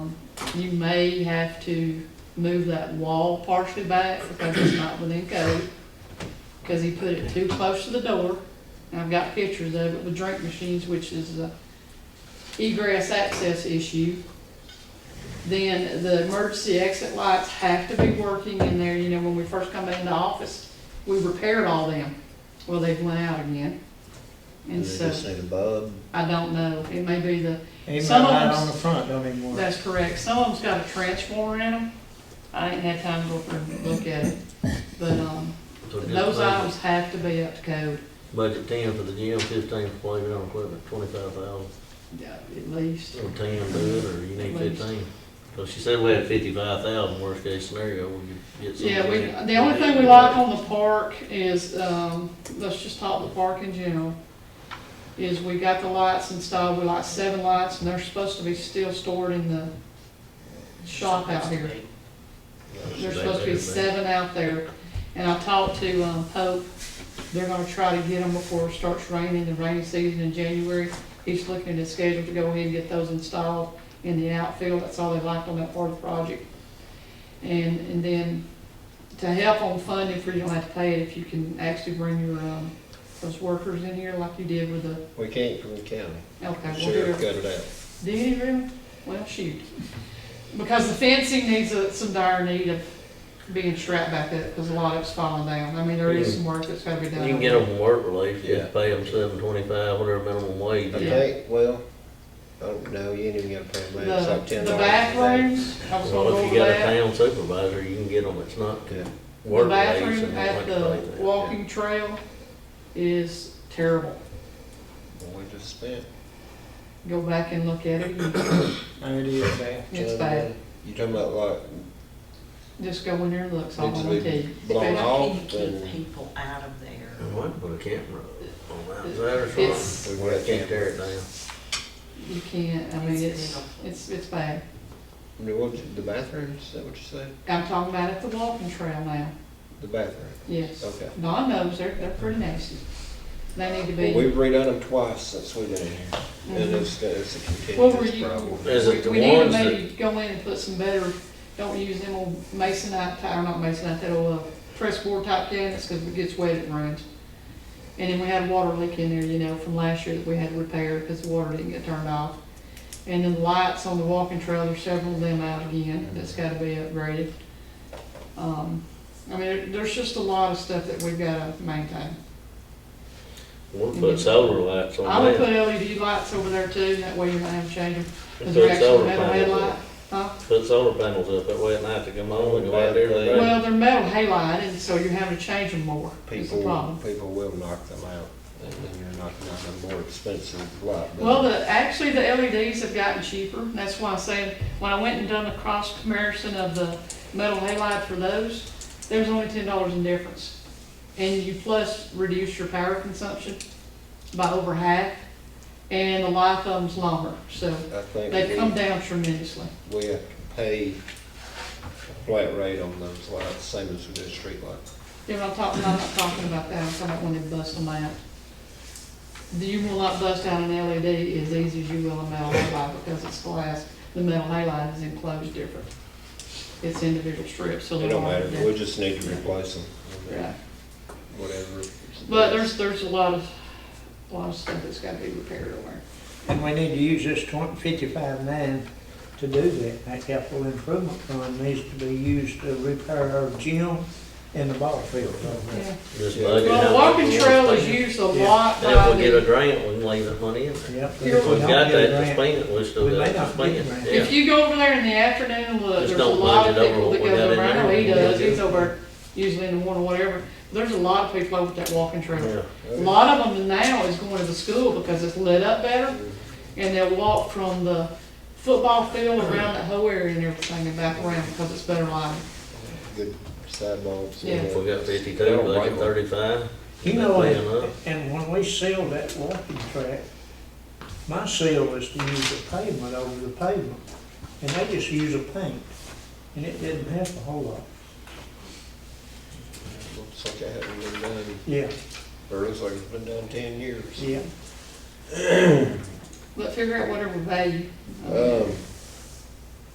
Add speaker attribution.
Speaker 1: you may have to move that wall partially back because it's not within code. Cause he put it too close to the door, and I've got pictures of it with drink machines, which is a egress access issue. Then the emergency exit lights have to be working in there, you know, when we first come in the office, we repaired all them. Well, they've went out again.
Speaker 2: They
Speaker 1: And so,
Speaker 2: just need a bulb.
Speaker 1: I don't know, it may be the
Speaker 3: Even the
Speaker 1: Some of
Speaker 3: light
Speaker 1: them's-
Speaker 3: on the front don't even work.
Speaker 1: that's correct. Some of them's got a transformer in them. I didn't have time to go through and look at it. But, um,
Speaker 4: So just
Speaker 1: those
Speaker 4: budget-
Speaker 1: items have to be up to code,
Speaker 4: Budget ten for the gym, fifteen for playground equipment, twenty-five thousand,
Speaker 1: yeah, at least.
Speaker 4: or ten do it, or you need
Speaker 1: At least.
Speaker 4: fifteen. So she said we had fifty-five thousand, worst case scenario, we could get some.
Speaker 1: Yeah, we, the only thing we like on the park is, um, let's just talk the park in general, is we got the lights installed, we like seven lights, and they're supposed to be still stored in the shop out here. There's supposed to be seven out there, and I talked to, um, Pope, they're gonna try to get them before it starts raining, the rainy season in January. He's looking at his schedule to go ahead and get those installed in the outfield, that's all they liked on that part of the project. And, and then to help on funding, for you don't have to pay it, if you can actually bring your, um, those workers in here like you did with the,
Speaker 2: We can't from the county.
Speaker 1: okay, well, here.
Speaker 2: Sheriff cut it out.
Speaker 1: Do you really? Well, shoot. Because the fencing needs a- some dire need of being strapped back up, because a lot of it's falling down. I mean, there is some work that's gotta be
Speaker 4: You
Speaker 1: done.
Speaker 4: can get them work relief,
Speaker 2: Yeah.
Speaker 4: just pay them seven twenty-five, whatever minimum wage.
Speaker 2: I
Speaker 1: Yeah.
Speaker 2: think, well, I don't know, you ain't even gotta pay them, it's like
Speaker 1: The,
Speaker 2: ten
Speaker 1: the
Speaker 2: dollars.
Speaker 1: bathrooms, I was gonna
Speaker 4: Well,
Speaker 1: go
Speaker 4: if
Speaker 1: over
Speaker 4: you got a
Speaker 1: that.
Speaker 4: town supervisor, you can get them, it's not
Speaker 2: Yeah,
Speaker 1: The
Speaker 4: work relief.
Speaker 1: bathroom at the walking trail is terrible.
Speaker 2: well, we just spent.
Speaker 1: Go back and look at it.
Speaker 3: No, it is bad.
Speaker 1: It's
Speaker 2: $10.
Speaker 1: bad.
Speaker 2: You talking about like,
Speaker 1: Just go in there and look, so I'm
Speaker 2: Needs to
Speaker 1: gonna
Speaker 2: be
Speaker 1: tell you.
Speaker 2: blown
Speaker 1: Especially-
Speaker 2: off
Speaker 5: Can you keep
Speaker 2: and
Speaker 5: people out of there?
Speaker 4: Why put a camera up on that, is that or
Speaker 1: It's-
Speaker 4: something?
Speaker 2: We want a
Speaker 4: Can't tear it
Speaker 2: camera.
Speaker 4: down.
Speaker 1: You can't, I mean,
Speaker 5: It's
Speaker 1: it's,
Speaker 5: beautiful.
Speaker 1: it's, it's bad.
Speaker 2: I mean, what, you- the bathrooms, is that what you said?
Speaker 1: I'm talking about at the walking trail now.
Speaker 2: The bathroom.
Speaker 1: Yes.
Speaker 2: Okay.
Speaker 1: Don knows, they're, they're pretty nasty. They need to
Speaker 2: Well, we've
Speaker 1: be.
Speaker 2: redone them twice since we've been in here, and
Speaker 1: Mhm.
Speaker 2: it's, it's a
Speaker 1: What were
Speaker 2: continuous
Speaker 1: you,
Speaker 2: problem.
Speaker 4: Is it
Speaker 1: we-
Speaker 4: the
Speaker 1: we need to
Speaker 4: ones that-
Speaker 1: maybe go in and put some better, don't use them old masonite, ti- or not masonite, that old uh, press board type cabinets, because it gets wet, it runs. And then we had a water leak in there, you know, from last year that we had to repair, because the water didn't get turned off. And then the lights on the walking trail, there's several of them out again, that's gotta be upgraded. Um, I mean, there- there's just a lot of stuff that we've gotta maintain.
Speaker 4: We'll put solar lights on that.
Speaker 1: I'm gonna put LED lights over there too, that way you don't have to change them, because they're
Speaker 4: Put
Speaker 1: actually
Speaker 4: solar
Speaker 1: metal
Speaker 4: panels up.
Speaker 1: headlight, huh?
Speaker 4: Put solar panels up, that way at night they come on, they go out there, they.
Speaker 1: Well, they're metal halide, and so you're having to change them more, is the
Speaker 2: People,
Speaker 1: problem.
Speaker 2: people will knock them out, and then you're knocking out a more expensive lot. but-
Speaker 1: Well, the, actually, the LEDs have gotten cheaper, and that's why I said, when I went and done a cross comparison of the metal halide for those, there's only ten dollars in difference. And you plus reduce your power consumption by over half, and the life of them's longer, so
Speaker 2: I think.
Speaker 1: they've
Speaker 2: we-
Speaker 1: come down tremendously.
Speaker 2: we have to pay a flat rate on those lights, same as we do street lights.
Speaker 1: Yeah, but I'm talking, I'm not talking about that, I'm talking about when they bust them out. You will not bust out an LED as easy as you will a metal halide, because it's glass, the metal halide is enclosed different. It's individual strips, so
Speaker 2: It
Speaker 1: they're.
Speaker 2: don't
Speaker 1: all
Speaker 2: matter, we
Speaker 1: different.
Speaker 2: just need to replace them,
Speaker 1: Right.
Speaker 2: whatever.
Speaker 1: But there's, there's a lot of, a lot of stuff that's gotta be repaired over there.
Speaker 3: And we need to use this twenty, fifty-five nine to do that. That capital improvement fund needs to be used to repair our gym and the ball field over there.
Speaker 4: Just
Speaker 2: Yeah.
Speaker 4: budget
Speaker 1: Well,
Speaker 4: how
Speaker 1: the walking
Speaker 4: much we
Speaker 1: trail
Speaker 4: wanna
Speaker 1: is
Speaker 4: spend.
Speaker 1: used a
Speaker 3: Yeah.
Speaker 1: lot
Speaker 4: And
Speaker 1: by
Speaker 4: if we get a
Speaker 1: the,
Speaker 4: grant, we can leave that money in there.
Speaker 3: Yep.
Speaker 1: Here
Speaker 4: If we
Speaker 3: don't
Speaker 4: got
Speaker 3: get a
Speaker 4: that to
Speaker 3: grant-
Speaker 4: spend, we still
Speaker 3: We may
Speaker 4: got to
Speaker 3: not
Speaker 4: spend
Speaker 3: get a grant.
Speaker 4: it, yeah.
Speaker 1: if you go over there in the afternoon, and look,
Speaker 4: Just
Speaker 1: there's a
Speaker 4: don't
Speaker 1: lot of
Speaker 4: budget
Speaker 1: people
Speaker 4: over what
Speaker 1: that
Speaker 4: we
Speaker 1: goes
Speaker 4: got in
Speaker 1: over, I know
Speaker 4: there.
Speaker 1: he does,
Speaker 4: Yeah.
Speaker 1: he's over usually in the morning, or whatever. There's a lot of people over at that walking trail.
Speaker 4: Yeah.
Speaker 1: A lot of them now is going to the school because it's lit up better, and they'll walk from the football field around that whole area and everything and back around because it's better lighting.
Speaker 2: Good sidewalks.
Speaker 1: Yeah.
Speaker 4: If we got
Speaker 2: They
Speaker 4: fifty-two,
Speaker 2: don't
Speaker 4: like
Speaker 2: break 'em.
Speaker 4: thirty-five.
Speaker 3: You
Speaker 4: we're
Speaker 3: know,
Speaker 4: paying up.
Speaker 3: and when we seal that walking track, my seal is to use the pavement over the pavement. And they just use a paint, and it didn't help a whole lot.
Speaker 2: Looks like it hasn't been done,
Speaker 3: Yeah,
Speaker 2: or looks like it's been done ten years.
Speaker 3: yeah.
Speaker 1: But figure out whatever value.
Speaker 2: Um,